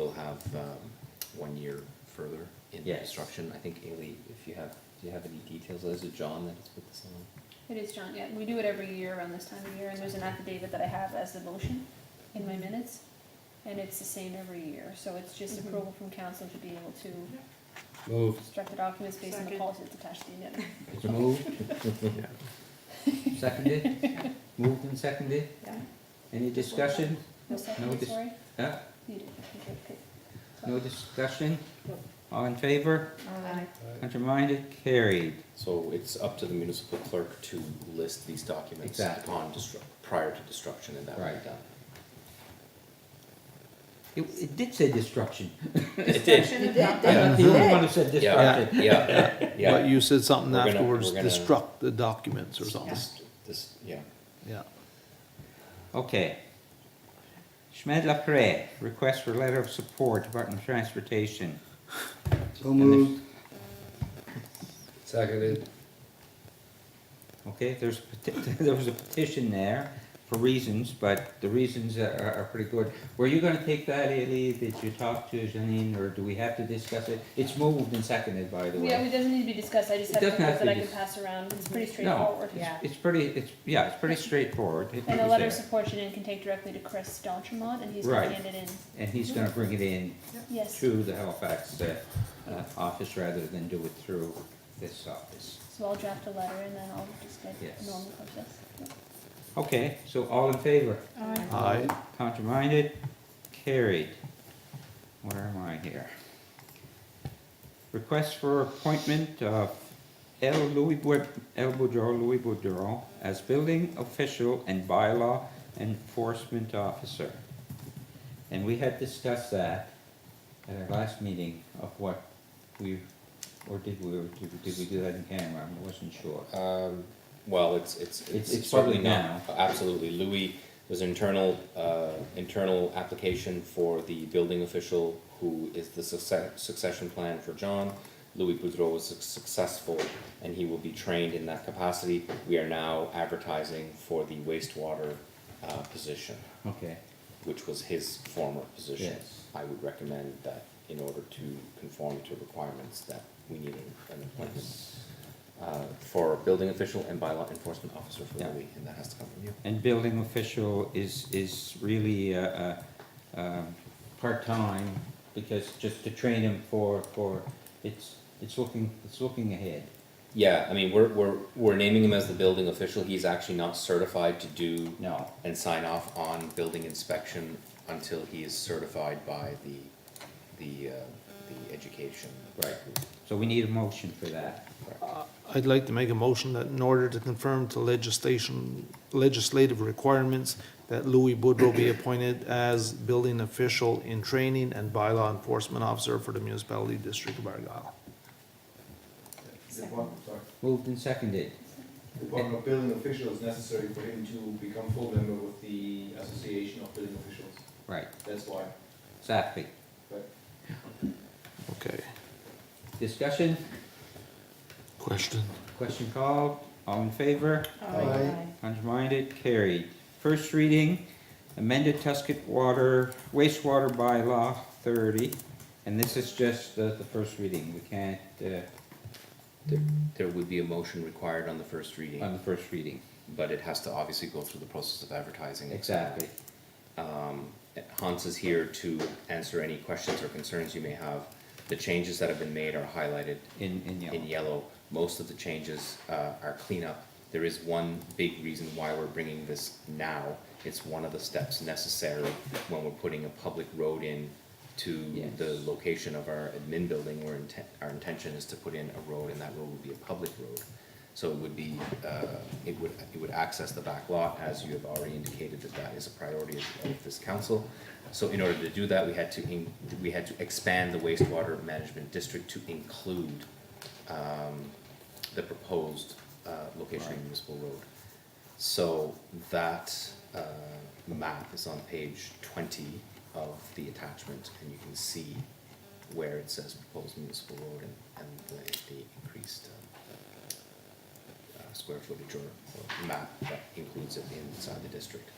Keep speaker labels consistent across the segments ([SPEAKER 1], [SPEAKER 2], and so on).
[SPEAKER 1] have um, one year further in
[SPEAKER 2] Yes.
[SPEAKER 1] construction. I think Ailey, if you have, do you have any details? Is it John that has put this on?
[SPEAKER 3] It is John, yeah, we do it every year around this time of year, and there's an affidavit that I have as the motion in
[SPEAKER 4] Mm-hmm.
[SPEAKER 3] my minutes, and it's the same every year, so it's just
[SPEAKER 4] Mhm.
[SPEAKER 3] approval from council to be able to
[SPEAKER 2] Moved.
[SPEAKER 3] construct the documents based on the
[SPEAKER 4] Second.
[SPEAKER 3] policy that's attached to the agenda.
[SPEAKER 2] It's moved, seconded, moved and seconded.
[SPEAKER 4] Yeah.
[SPEAKER 2] Any discussion?
[SPEAKER 3] No second,
[SPEAKER 2] dis-
[SPEAKER 3] sorry?
[SPEAKER 2] Huh?
[SPEAKER 3] You did, okay, good.
[SPEAKER 2] No discussion?
[SPEAKER 4] No.
[SPEAKER 2] All in favor?
[SPEAKER 4] Aye.
[SPEAKER 2] Contrary-minded, carried.
[SPEAKER 1] So it's up to the municipal clerk to list these documents
[SPEAKER 2] Exactly.
[SPEAKER 1] upon destru- prior to destruction and that will
[SPEAKER 2] Right.
[SPEAKER 1] be done.
[SPEAKER 2] It, it did say destruction.
[SPEAKER 1] It did.
[SPEAKER 4] It did.
[SPEAKER 2] I'm not the only one who said
[SPEAKER 1] Yeah,
[SPEAKER 2] destruction.
[SPEAKER 1] yeah,
[SPEAKER 5] But
[SPEAKER 1] yeah.
[SPEAKER 5] you said something
[SPEAKER 1] We're gonna-
[SPEAKER 5] afterwards,
[SPEAKER 1] we're gonna-
[SPEAKER 5] destruct the documents or something,
[SPEAKER 1] This, this, yeah.
[SPEAKER 5] yeah.
[SPEAKER 2] Okay. Schmed Lapre, request for letter of support, Department of Transportation.
[SPEAKER 6] So
[SPEAKER 2] And if-
[SPEAKER 6] moved. Seconded.
[SPEAKER 2] Okay, there's, a peti- there was a petition there for reasons, but the reasons are, are are pretty good. Were you gonna take that, Ailey, that you talked to Janine, or do we have to discuss it? It's moved and seconded, by the way.
[SPEAKER 3] Yeah, it doesn't need to be discussed, I just
[SPEAKER 2] It
[SPEAKER 3] have
[SPEAKER 2] doesn't have
[SPEAKER 3] comments
[SPEAKER 2] to
[SPEAKER 3] that I
[SPEAKER 2] be
[SPEAKER 3] can
[SPEAKER 2] dis-
[SPEAKER 3] pass around, it's pretty
[SPEAKER 2] No,
[SPEAKER 3] straightforward.
[SPEAKER 4] Mm-hmm. Yeah.
[SPEAKER 2] it's, it's pretty, it's, yeah, it's pretty straightforward. It
[SPEAKER 3] And a
[SPEAKER 2] was
[SPEAKER 3] letter of
[SPEAKER 2] there.
[SPEAKER 3] support Janine can take directly to Chris Donchamont, and he's gonna
[SPEAKER 2] Right.
[SPEAKER 3] hand it in,
[SPEAKER 2] And he's gonna bring it in
[SPEAKER 3] yes, so
[SPEAKER 2] to the Halifax, uh, uh, office rather than do it through this office.
[SPEAKER 3] I'll draft a letter and then I'll just get
[SPEAKER 2] Yes.
[SPEAKER 3] normal process. Yeah.
[SPEAKER 2] Okay, so all in favor?
[SPEAKER 5] Aye.
[SPEAKER 2] Contraminded, carried. Where am I here? Request for appointment of L. Louis Bu- L. Boudreau, Louis Boudreau as building official and bylaw enforcement officer. And we had discussed that at our last meeting of what we, or did we, or did did we do that in camera? I wasn't sure.
[SPEAKER 1] Um, well, it's, it's,
[SPEAKER 2] It's-
[SPEAKER 1] it's
[SPEAKER 2] it's
[SPEAKER 1] certainly
[SPEAKER 2] public
[SPEAKER 1] not, absolutely, Louis was an internal, uh, internal application for the building official who is the success, succession plan for John. Louis Boudreau was suc- successful and he will be trained in that capacity. We are now advertising for the wastewater, uh, position,
[SPEAKER 2] Okay,
[SPEAKER 1] which was his former position.
[SPEAKER 2] Yes.
[SPEAKER 1] I would recommend that in order to conform to requirements that we need an an appointment uh, for building official and bylaw enforcement officer for
[SPEAKER 2] Yeah.
[SPEAKER 1] Louis, and that has to come from you.
[SPEAKER 2] And building official is, is really, uh, uh, um, part-time, because just to train him for, for, it's, it's looking, it's looking ahead.
[SPEAKER 1] Yeah, I mean, we're, we're, we're naming him as the building official, he's actually not certified to do
[SPEAKER 2] No,
[SPEAKER 1] and sign off on building inspection until he is certified by the, the, uh, the education.
[SPEAKER 2] Right. so we need a motion for that.
[SPEAKER 5] I'd like to make a motion that in order to conform to legislation, legislative requirements, that Louis Boudreau be appointed as building official in training and bylaw enforcement officer for the municipality district of Argyle.
[SPEAKER 2] Moved and seconded,
[SPEAKER 6] The appointment of building official is necessary for him to become full member with the Association of Building Officials.
[SPEAKER 2] right,
[SPEAKER 6] That's why.
[SPEAKER 2] exactly.
[SPEAKER 5] Okay,
[SPEAKER 2] Discussion,
[SPEAKER 5] question?
[SPEAKER 2] question called, all in favor?
[SPEAKER 6] Aye.
[SPEAKER 2] Contraminded, carried. First reading, amended Tuscan water, wastewater bylaw thirty, and this is just the, the first reading, we can't, uh,
[SPEAKER 1] There would be a motion required on the first reading,
[SPEAKER 2] on the first reading,
[SPEAKER 1] but it has to obviously go through the process of advertising. et cetera.
[SPEAKER 2] exactly.
[SPEAKER 1] Hans is here to answer any questions or concerns you may have. The changes that have been made are highlighted
[SPEAKER 2] In, in
[SPEAKER 1] in
[SPEAKER 2] yellow.
[SPEAKER 1] yellow. Most of the changes uh, are cleanup. There is one big reason why we're bringing this now. It's one of the steps necessary when we're putting a public road in to the
[SPEAKER 2] Yes.
[SPEAKER 1] location of our admin building. Where inten our intention is to put in a road, and that road would be a public road. So it would be, uh, it would, it would access the back lot, as you have already indicated that that is a priority of of this council. So in order to do that, we had to, in- we had to expand the wastewater management district to include um, the proposed uh, location of
[SPEAKER 2] Right.
[SPEAKER 1] Municipal Road. So that uh, map is on page twenty of the attachment, and you can see where it says proposed municipal road and, and the, the increased um, uh, square footage or, or map that includes it inside the district.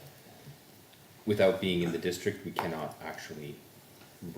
[SPEAKER 1] Without being in the district, we cannot actually